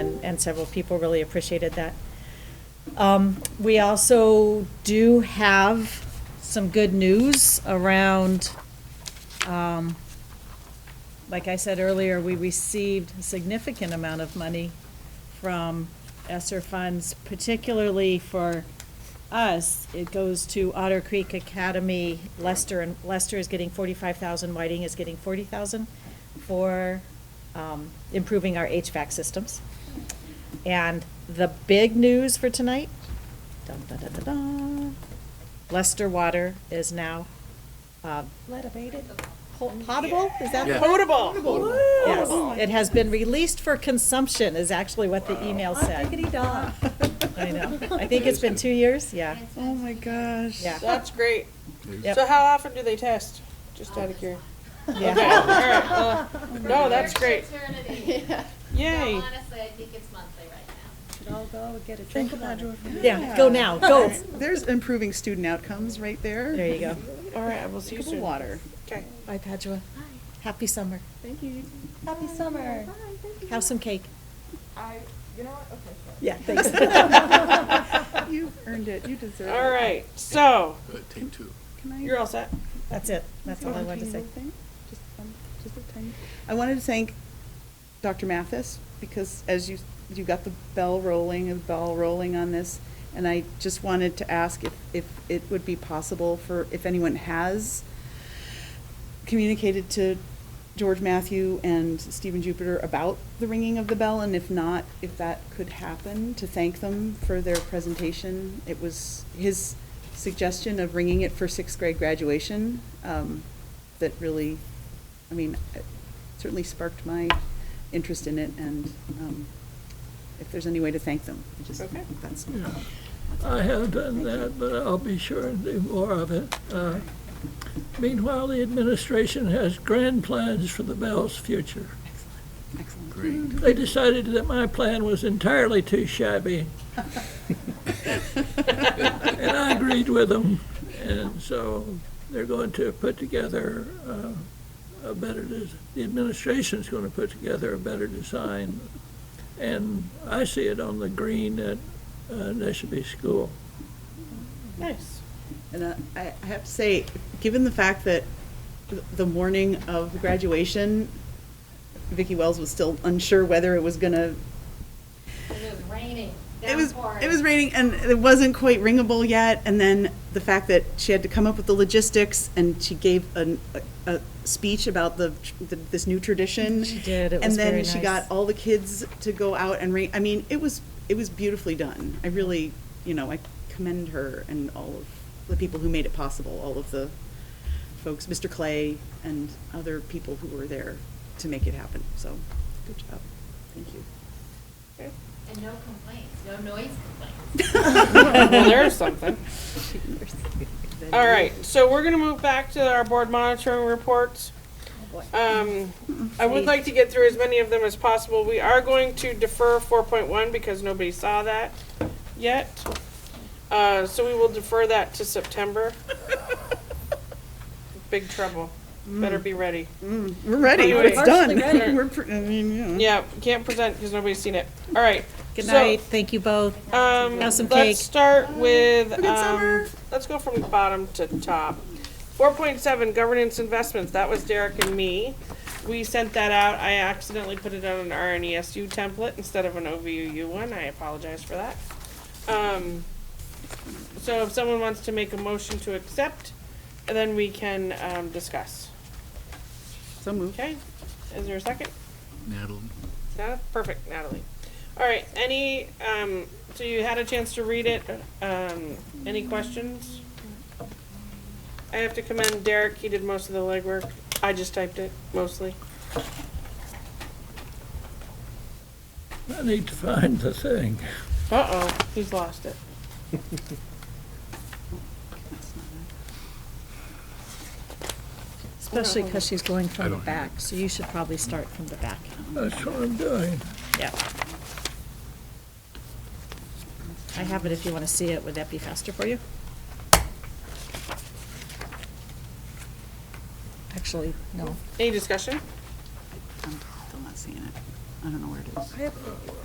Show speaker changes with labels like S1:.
S1: and several people really appreciated that. Um, We also do have some good news around, um, like I said earlier, we received a significant amount of money from ESSER funds, particularly for us. It goes to Otter Creek Academy, Lester, and Lester is getting forty-five thousand, Whiting is getting forty thousand for um, improving our HVAC systems. And the big news for tonight, dun, dun, dun, dun, dun, Lester Water is now, uh,
S2: Let abated.
S1: po- potable, is that?
S3: Yeah.
S2: Potable.
S1: Yes,
S4: Oh,
S1: it has been released for consumption is actually what the email
S4: Oh,
S1: said.
S2: Diggity dog.
S1: I know. I think it's been two years, yeah,
S4: Oh my gosh.
S1: yeah.
S5: That's great.
S1: Yep.
S5: So how often do they test? Just out of curiosity. Okay,
S1: Yeah.
S5: all right, uh, No, that's great.
S6: Eternity.
S5: Yay.
S6: No, honestly, I think it's monthly right now.
S2: Should all go and get a drink of water.
S1: Yeah, go now, go.
S4: There's improving student outcomes right there.
S1: There you go.
S5: All right, I will see you
S4: Drink of
S5: soon.
S4: water.
S5: Okay.
S1: Bye, Padua. Happy summer.
S2: Happy summer.
S1: Have some cake.
S7: I, you know what, okay, sure.
S1: Yeah, thanks.
S4: You've earned it. You deserve it.
S5: All right, so
S3: Good, Take two.
S4: Can I-
S5: you're all set.
S1: That's it. That's all I wanted to say.
S4: Little thing? Just, um, just a tiny- I wanted to thank Dr. Mathis, because as you, you got the bell rolling, and bell rolling on this, and I just wanted to ask if, if it would be possible for, if anyone has communicated to George Matthew and Stephen Jupiter about the ringing of the bell, and if not, if that could happen, to thank them for their presentation. It was his suggestion of ringing it for sixth grade graduation um, that really, I mean, it certainly sparked my interest in it, and um, if there's any way to thank them, I just,
S5: Okay.
S4: that's,
S8: Yeah. I have done that, but I'll be sure and do more of it. Uh, Meanwhile, the administration has grand plans for the Bell's future.
S4: excellent.
S3: Great.
S8: They decided that my plan was entirely too shabby, and I agreed with them. And so they're going to put together uh, a better, des- the administration's going to put together a better design. And I see it on the green at uh, Neshabie School.
S5: Nice.
S4: And uh, I I have to say, given the fact that th- the morning of graduation, Vicki Wells was still unsure whether it was gonna,
S6: It was raining,
S4: it was,
S6: downpouring.
S4: it was raining and it wasn't quite ringable yet. And then the fact that she had to come up with the logistics and she gave an- a, a speech about the, tr- the- this new tradition.
S1: She did. It
S4: And
S1: was
S4: then
S1: very
S4: she
S1: nice.
S4: got all the kids to go out and ring, I mean, it was, it was beautifully done. I really, you know, I commend her and all of the people who made it possible, all of the folks, Mr. Clay and other people who were there to make it happen. So, good job. Thank you.
S6: And no complaints, no noise complaints.
S5: Well, there's something. All right, so we're gonna move back to our board monitoring reports. Um, I would like to get through as many of them as possible. We are going to defer four point one because nobody saw that yet. Uh, so we will defer that to September. Big trouble. Better be ready.
S4: We're ready.
S5: We're
S4: It's done.
S5: partially ready.
S4: We're, pr- I mean, you know.
S5: Yeah, can't present because nobody's seen it. All right.
S1: Good
S5: so,
S1: night. Thank you both.
S5: Um,
S1: Have some cake.
S5: let's start with,
S4: Good
S5: um,
S4: summer.
S5: let's go from bottom to top. Four point seven, governance investments, that was Derek and me. We sent that out, I accidentally put it on an RNESU template instead of an OVU one, I apologize for that. Um, so if someone wants to make a motion to accept, then we can, um, discuss.
S4: So moved.
S5: Okay, is there a second?
S3: Natalie?
S5: Nat- Perfect, Natalie. All right, any, um, so you had a chance to read it, um, any questions? I have to commend Derek, he did most of the legwork, I just typed it mostly.
S8: I need to find the thing.
S5: Uh-oh, he's lost it.
S1: Especially because she's going
S3: I
S1: from the
S3: don't have
S1: back, so you should probably start from the back.
S8: That's what I'm doing.
S1: Yeah. I have it if you want to see it. Would that be faster for you? Actually, no.
S5: Any discussion?
S4: I'm still not seeing it. I don't know where it is.